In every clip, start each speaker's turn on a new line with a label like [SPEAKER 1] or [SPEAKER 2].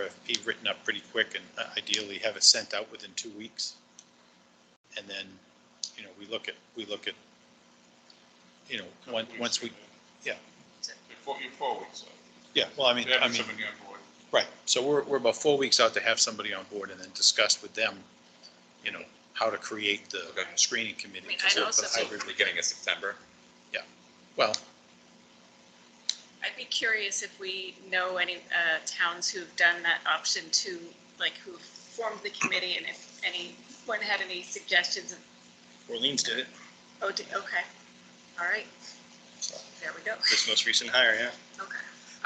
[SPEAKER 1] RFP written up pretty quick and uh, ideally have it sent out within two weeks. And then, you know, we look at, we look at, you know, once, once we,
[SPEAKER 2] You're four, you're four weeks out.
[SPEAKER 1] yeah, well, I mean,
[SPEAKER 2] You
[SPEAKER 1] I
[SPEAKER 2] have
[SPEAKER 1] mean,
[SPEAKER 2] somebody on board.
[SPEAKER 1] right. So we're, we're about four weeks out to have somebody on board and then discuss with them, you know, how to create the
[SPEAKER 3] Okay.
[SPEAKER 1] screening committee.
[SPEAKER 4] I mean,
[SPEAKER 1] because
[SPEAKER 4] I'd
[SPEAKER 1] of the
[SPEAKER 4] also
[SPEAKER 3] So
[SPEAKER 4] be-
[SPEAKER 1] hybrid-
[SPEAKER 3] we're getting a September.
[SPEAKER 1] Well,
[SPEAKER 4] I'd be curious if we know any uh, towns who've done that option two, like who've formed the committee and if anyone had any suggestions of,
[SPEAKER 5] Orleans did it,
[SPEAKER 4] oh, d- okay. All right,
[SPEAKER 5] so,
[SPEAKER 4] there we go.
[SPEAKER 5] this most recent hire, yeah.
[SPEAKER 4] Okay.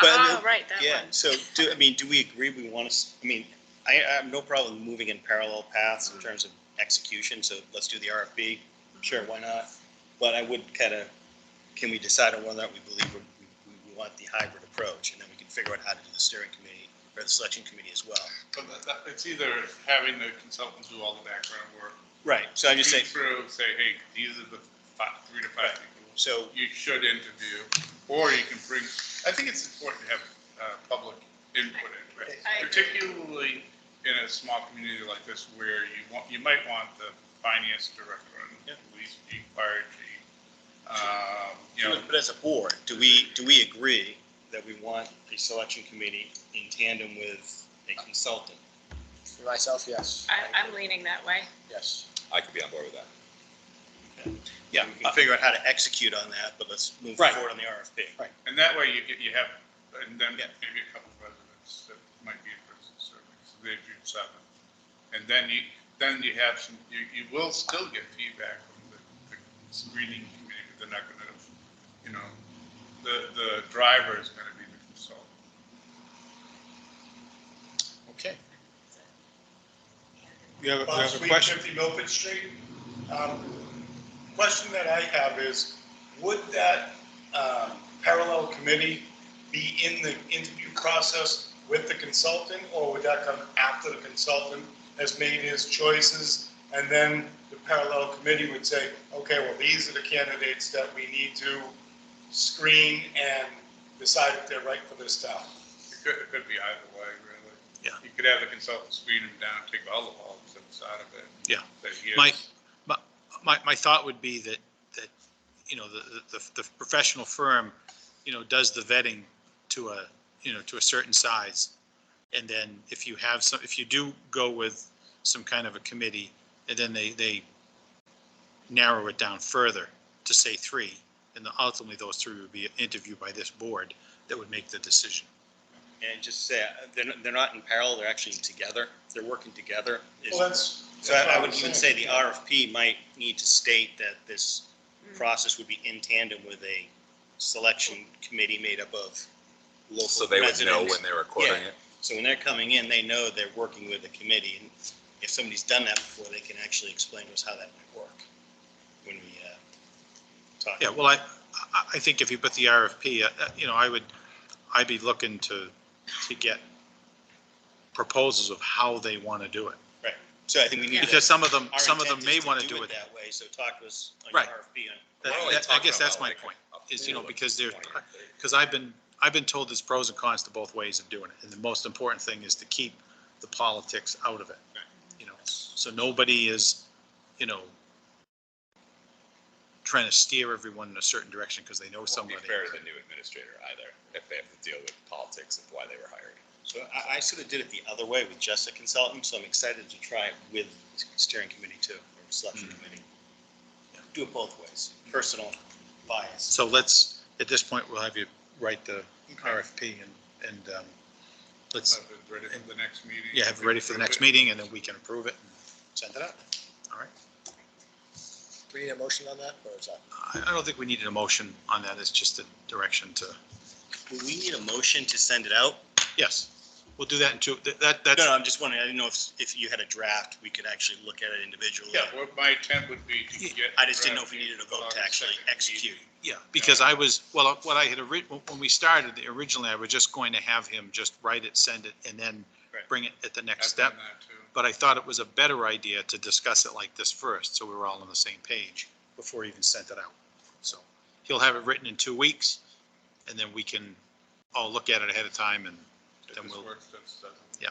[SPEAKER 5] But I mean,
[SPEAKER 4] Oh, right, that
[SPEAKER 5] Yeah,
[SPEAKER 4] one.
[SPEAKER 5] so do, I mean, do we agree we want to, I mean, I, I have no problem moving in parallel paths in terms of execution, so let's do the RFP. Sure, why not? But I would kind of, can we decide on whether or not we believe we, we- we want the hybrid approach? And then we can figure out how to do the steering committee or the selection committee as well.
[SPEAKER 2] But that- that- It's either having the consultants do all the background work.
[SPEAKER 5] Right, so I'm just
[SPEAKER 2] read
[SPEAKER 5] saying,
[SPEAKER 2] Through, say, hey, these are the five, three to five people
[SPEAKER 5] so,
[SPEAKER 2] you should interview, or you can bring, I think it's important to have uh, public input in, it,
[SPEAKER 4] I agree.
[SPEAKER 2] particularly in a small community like this where you want, you might want the finance director and police chief, fire chief, um, you know,
[SPEAKER 5] but as a board, do we, do we agree that we want a selection committee in tandem with a consultant?
[SPEAKER 6] For myself, yes,
[SPEAKER 4] I, I'm leaning that way.
[SPEAKER 6] yes.
[SPEAKER 3] I could be on board with that.
[SPEAKER 1] yeah, uh,
[SPEAKER 5] We can figure out how to execute on that, but let's move
[SPEAKER 1] Right.
[SPEAKER 5] forward on the RFP.
[SPEAKER 2] and that way you get, you have, and then
[SPEAKER 5] Yeah.
[SPEAKER 2] maybe a couple of residents that might be interested in serving, so they do seven. And then you, then you have some, you, you will still get feedback from the, the screening committee, but they're not gonna, you know, the, the driver is gonna be the consultant.
[SPEAKER 1] okay.
[SPEAKER 2] You have,
[SPEAKER 7] Bob Sweet, 50 Milford Street. Um, Question that I have is, would that um, parallel committee be in the interview process with the consultant? Or would that come after the consultant has made his choices? And then the parallel committee would say, okay, well, these are the candidates that we need to screen and decide if they're right for this town.
[SPEAKER 2] It could, it could be either way, really.
[SPEAKER 1] Yeah.
[SPEAKER 2] You could have the consultant screen them down, take all the bulbs out of it.
[SPEAKER 1] Yeah.
[SPEAKER 2] Say, here's-
[SPEAKER 1] Mike, my, my, my thought would be that, that, you know, the, the, the professional firm, you know, does the vetting to a, you know, to a certain size. And then if you have some, if you do go with some kind of a committee, and then they, they narrow it down further to say three, and then ultimately those three would be interviewed by this board that would make the decision.
[SPEAKER 5] And just say, uh, they're, not- they're not in parallel, they're actually together, they're working together. Is-
[SPEAKER 7] Well, that's.
[SPEAKER 5] So I I would
[SPEAKER 7] that's what I'm
[SPEAKER 5] even say
[SPEAKER 7] saying.
[SPEAKER 5] the RFP might need to state that this process would be in tandem with a selection committee made up of
[SPEAKER 3] So
[SPEAKER 5] local
[SPEAKER 3] they would know
[SPEAKER 5] residents.
[SPEAKER 3] when they were recording it.
[SPEAKER 5] So when they're coming in, they know they're working with a committee, and if somebody's done that before, they can actually explain to us how that might work when we uh, talk.
[SPEAKER 1] Yeah, well, I, I, I think if you put the RFP, uh, uh, you know, I would, I'd be looking to, to get proposals of how they want to do it.
[SPEAKER 5] So I think we need to.
[SPEAKER 1] Because some of them,
[SPEAKER 5] our
[SPEAKER 1] some of them
[SPEAKER 5] intent
[SPEAKER 1] may
[SPEAKER 5] is
[SPEAKER 1] want to do it.
[SPEAKER 5] That way, so talk to us on your
[SPEAKER 1] Right.
[SPEAKER 5] RFP on
[SPEAKER 1] That-
[SPEAKER 3] We're only
[SPEAKER 1] that- I
[SPEAKER 3] talking
[SPEAKER 1] guess that's
[SPEAKER 3] about
[SPEAKER 1] my
[SPEAKER 3] like
[SPEAKER 1] point,
[SPEAKER 3] a-
[SPEAKER 1] is, you know,
[SPEAKER 3] a
[SPEAKER 1] because they're-
[SPEAKER 3] 20 or 30.
[SPEAKER 1] Because I've been, I've been told there's pros and cons to both ways of doing it. And the most important thing is to keep the politics out of it. You know, so nobody is, you know, trying to steer everyone in a certain direction because they know
[SPEAKER 3] Won't be
[SPEAKER 1] somebody.
[SPEAKER 3] fair to the new administrator either, if they have to deal with politics of why they were hired.
[SPEAKER 5] So I, I sort of did it the other way with just a consultant, so I'm excited to try it with steering committee too, or selection committee. Do it both ways, personal bias.
[SPEAKER 1] So let's, at this point, we'll have you write the RFP and, and um, let's,
[SPEAKER 2] Have it ready for the next meeting.
[SPEAKER 1] yeah, have it ready for the next meeting, and then we can approve it and send it out. All right.
[SPEAKER 6] Do we need a motion on that, or is that?
[SPEAKER 1] I, I don't think we needed a motion on that, it's just a direction to,
[SPEAKER 5] Do we need a motion to send it out?
[SPEAKER 1] yes, we'll do that in two, that- that,
[SPEAKER 5] No,
[SPEAKER 1] that's,
[SPEAKER 5] no, I'm just wondering, I didn't know if, if you had a draft, we could actually look at it individually.
[SPEAKER 2] Yeah, what my intent would be to get.
[SPEAKER 5] I just didn't know if we needed a vote to actually execute.
[SPEAKER 1] yeah, because I was, well, uh, what I had, ori- when we started, originally, I was just going to have him just write it, send it, and then
[SPEAKER 5] Right.
[SPEAKER 1] bring it at the next
[SPEAKER 2] I've
[SPEAKER 1] step.
[SPEAKER 2] done that too.
[SPEAKER 1] but I thought it was a better idea to discuss it like this first, so we were all on the same page before he even sent it out. So he'll have it written in two weeks, and then we can all look at it ahead of time and
[SPEAKER 2] If
[SPEAKER 1] Then
[SPEAKER 2] this
[SPEAKER 1] we'll-
[SPEAKER 2] works, that's- that's-